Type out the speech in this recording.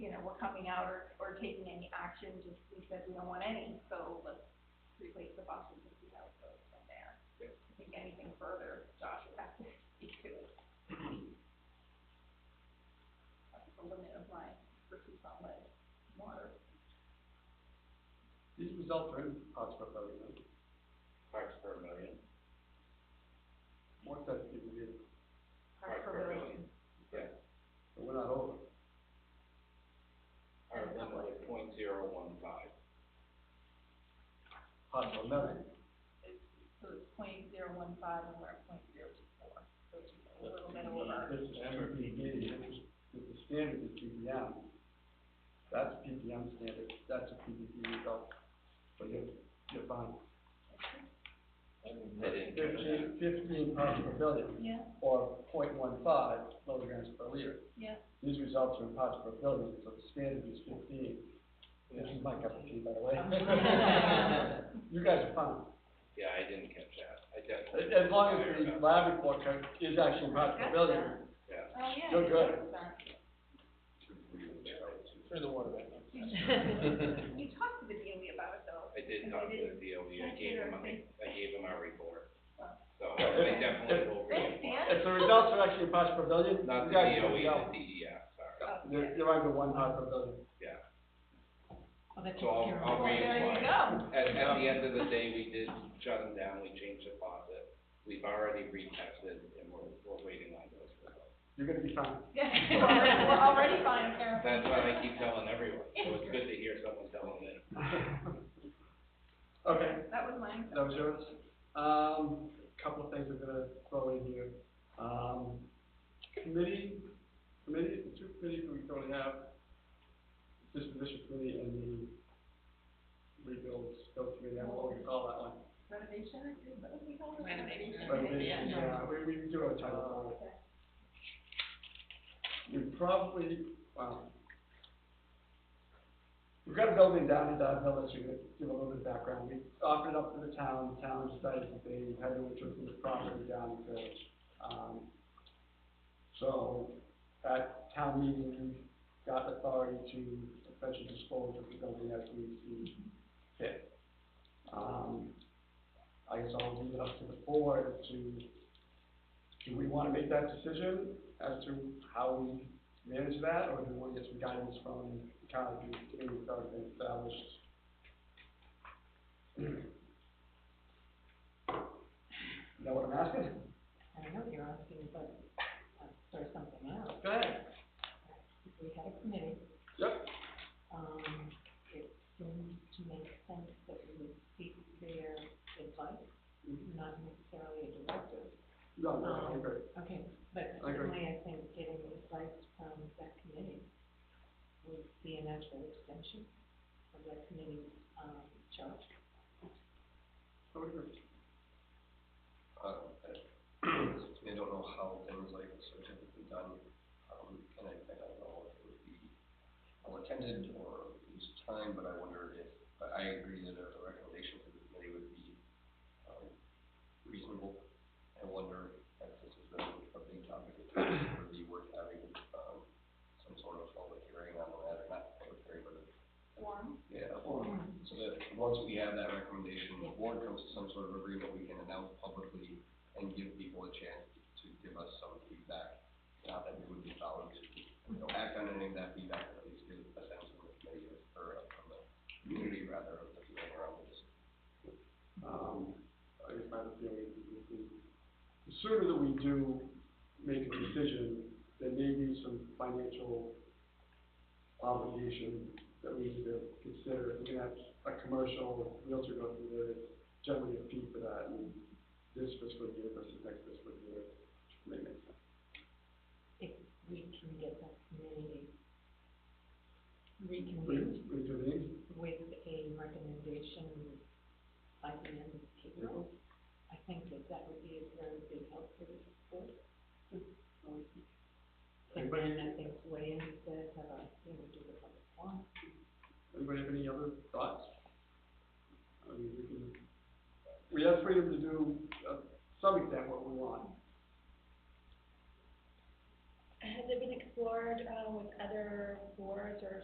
we're coming out or, or taking any action, just we said we don't want any, so let's replace the buses and see how it goes from there. Yeah. I think anything further, Josh would have to speak to it. That's the limit of my expertise on lead, water. These results are in parts per billion, right? parts per million. what's that giving you, Parts per billion. Yeah, so we're not over. Oh, our limit is point zero one five. Parts per million, It's, so it's point zero one five and we're at point zero two four, so it's just a little bit over. this is PPM, this is, this is standard is PPM. That's PPM standard, that's a PPP result, but you're, you're fine. They didn't give us Fifteen, fifteen parts per billion, Yeah, or point one five milligrams per liter. yeah. These results are in parts per billion, so the standard is fifteen. This is my cup of tea, by the way. You guys are fine. Yeah, I didn't catch that, I As, definitely. as long as the lab report card is actually in parts per billion, Yeah. Oh, yeah. You're good. Turn the water back You- You talked to the DOE about it though. I did talk to the DOB, I gave him, my- I gave him our report, so Okay. I definitely will. Thanks, Dan. if the results are actually in parts per billion, you Not guys the E. can DOE, go. the DEF, sorry, Oh, yeah. You're, you're under one part per billion. yeah. Well, that takes So I'll, care of I'll Well, reapply. there you go. At, at the end of the day, we did shut them down, we changed the faucet, we've already retested, and we're, we're waiting on those results. You're gonna be fine. Yeah, we're already- we're already fine, Karen. That's what I keep telling everyone, so it's good to hear someone telling it. Okay, That was mine. that was yours. Um, couple of things I'm gonna throw in here. Um, committee, committee, the two committees we currently have, disposition committee and the rebuild, scope committee, I don't know what we call that one. Renovation, is that what we call it? Renovation. Renovation, yeah, we, we do have a title for it. Okay. we probably, well, we've got a building down in Downhill that you could give a little bit of background. We offered it up to the town, the town decided that they had no interest in the property down in Village. Um, so at town meeting, we got authority to essentially dispose of the building as we see fit. Um, I guess I'll leave it up to the board to do we want to make that decision as to how we manage that, or do we want to get some guidance from the county committee that's already been established? Know what I'm asking? I don't know, you're asking, but, uh, sort of something out. Go ahead. We had a committee, Yep, um, it seemed to make sense that we would seek their advice, Mm-hmm. not necessarily a directive. no, no, I agree. Okay, but I agree. certainly I think getting advice from that committee would be a natural extension of that committee's, um, charge. I would agree. Uh, I don't know how things like this are typically done, um, and I, I don't know if it would be well attended or use time, but I wonder if, I, I agree that a recommendation from the committee would be, um, reasonable. I wonder if this is a, a big topic, it would be worth having, um, some sort of public hearing on the matter, not public hearing, but a One. yeah, well, so that, once we have that recommendation, the board comes to some sort of agreement, we can announce publicly and give people a chance to give us some feedback. Not that we would be following, you know, act on any of that feedback, but at least give a sense from the committee or- or from the community rather of the feeling around this. Um, I guess my other feeling would be, the sooner that we do make a decision, there may be some financial obligation that we need to consider. If we're gonna have a commercial realtor go through there, there's generally a fee for that, and this fiscal year versus next fiscal year, may make sense. If we can get that committee We, reconvened we do these, with a recommendation by the end of April. I think that that would be a very big help for this board. And Anybody- then I think weigh in, says, have a, uh, you know, do the public forum. anybody have any other thoughts? I mean, we can, we have freedom to do, uh, some extent what we want. Has it been explored, uh, with other boards or